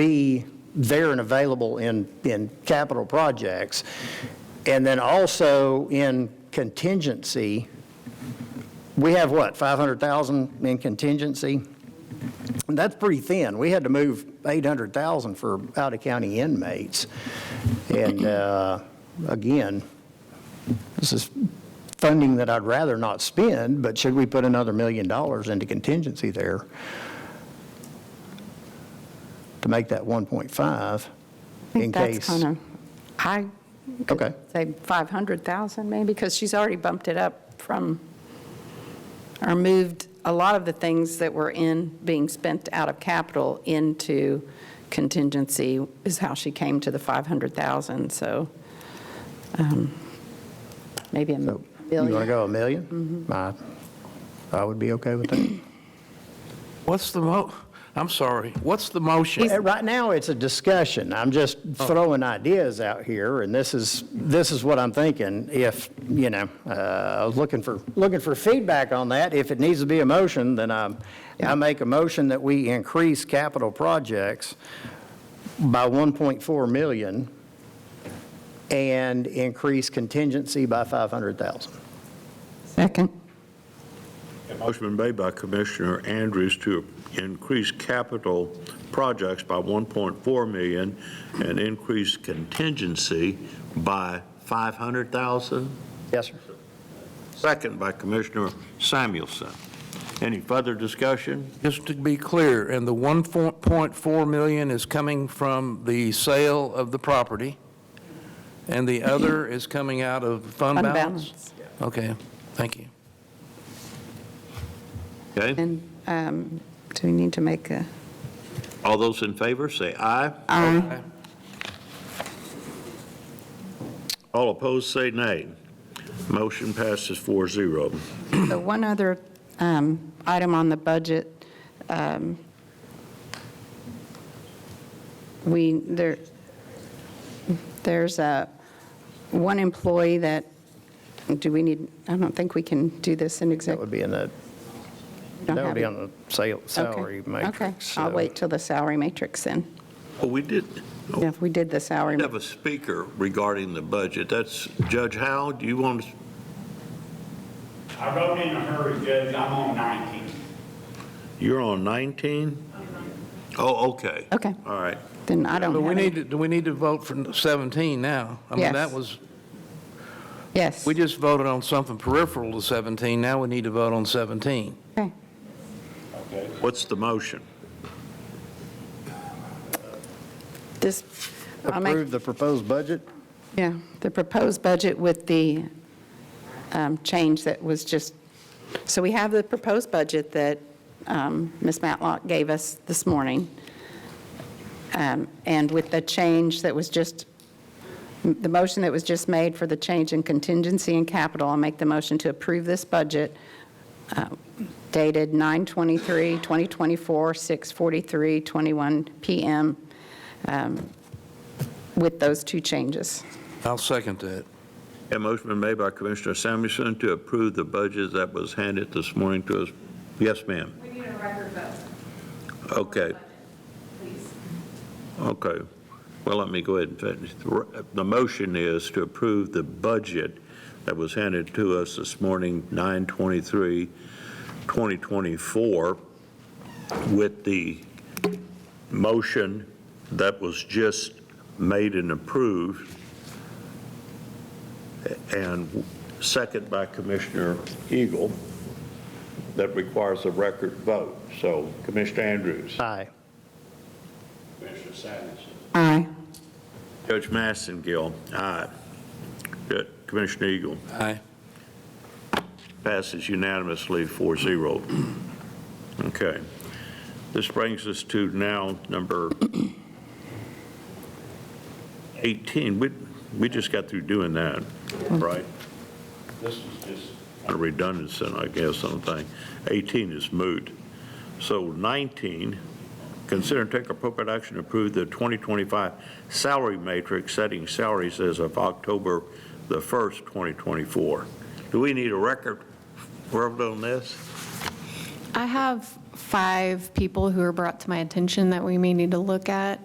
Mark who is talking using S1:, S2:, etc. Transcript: S1: be there and available in, in capital projects. And then also in contingency, we have what, 500,000 in contingency? And that's pretty thin. We had to move 800,000 for out-of-county inmates. And uh, again, this is funding that I'd rather not spend, but should we put another million dollars into contingency there? to make that 1.5
S2: I
S1: in
S2: think that's
S1: case.
S2: kind of, I
S1: Okay.
S2: could say 500,000 maybe, because she's already bumped it up from, or moved a lot of the things that were in, being spent out of capital into contingency is how she came to the 500,000, so um, maybe a
S1: So, You want to
S2: billion.
S1: go a 1000000 I I would be okay with that.
S3: What's the mo, I'm sorry, what's the motion?
S1: Uh, Right now, it's a discussion. I'm just
S2: Oh.
S1: throwing ideas out here, and this is, this is what I'm thinking. If, you know, uh, I was looking for, looking for feedback on that. If it needs to be a motion, then I, I make a motion that we increase capital projects by 1.4 million and increase contingency by 500,000.
S2: Second.
S4: A Motion been made by Commissioner Andrews to increase capital projects by 1.4 million and increase contingency by 500,000.
S1: Yes, sir.
S4: Second by Commissioner Samuelson. Any further discussion?
S3: Just to be clear, and the 1.4 million is coming from the sale of the property, and the other is coming out of fund
S2: Fund
S3: balance? Okay, thank you.
S4: Okay,
S2: And um, do we need to make a,
S4: all those in favor, say aye.
S2: Aye.
S4: All opposed, say nay. Motion passes 4-0.
S2: So one other um, item on the budget, um, we, there, there's a, one employee that, do we need, I don't think we can do this in
S1: That
S2: exec.
S1: would be in the,
S2: don't
S1: that would
S2: have
S1: be
S2: it.
S1: on the sal-
S2: Okay.
S1: salary matrix.
S2: Okay, I'll
S1: so-
S2: wait till the salary matrix then.
S4: Well, we did
S2: Yeah, If we did the salary,
S4: have a speaker regarding the budget. That's Judge Howe. Do you want to
S5: I wrote in a hurry, Judge, I'm on 19.
S4: You're on 19? Oh, okay.
S2: okay,
S4: All right.
S2: then I don't
S3: But we
S2: have
S3: need,
S2: any.
S3: to- do we need to vote for 17 now? I mean,
S2: Yes.
S3: that was,
S2: Yes,
S3: we just voted on something peripheral to 17, now we need to vote on 17.
S2: okay.
S4: What's the motion?
S2: This, I'll make
S1: Approve the proposed budget?
S2: Yeah, the proposed budget with the um, change that was just, so we have the proposed budget that um, Ms. Matlock gave us this morning, Um, and with the change that was just, the motion that was just made for the change in contingency and capital, I'll make the motion to approve this budget uh, dated 9/23, 2024, 6:43, 21 PM, um, with those two changes.
S3: I'll second that.
S4: A motion been made by Commissioner Samuelson to approve the budget that was handed this morning to us. Yes, ma'am.
S6: We need a record vote.
S4: Okay,
S6: Please.
S4: okay. Well, let me go ahead and finish. The- The motion is to approve the budget that was handed to us this morning, 9/23, 2024, with the motion that was just made and approved, and second by Commissioner Eagle, that requires a record vote. So Commissioner Andrews.
S1: Aye.
S4: Commissioner Samuelson.
S2: Aye.
S4: Judge Massengill, aye. Good. Commissioner Eagle,
S3: Aye.
S4: passes unanimously 4-0. Okay. This brings us to now number 18. We, we just got through doing that, right? This is just a redundancy, I guess, on the thing. 18 is moot. So 19, consider and take appropriate action to approve the 2025 salary matrix setting salaries as of October the 1st, 2024. Do we need a record vote on this?
S6: I have five people who are brought to my attention that we may need to look at.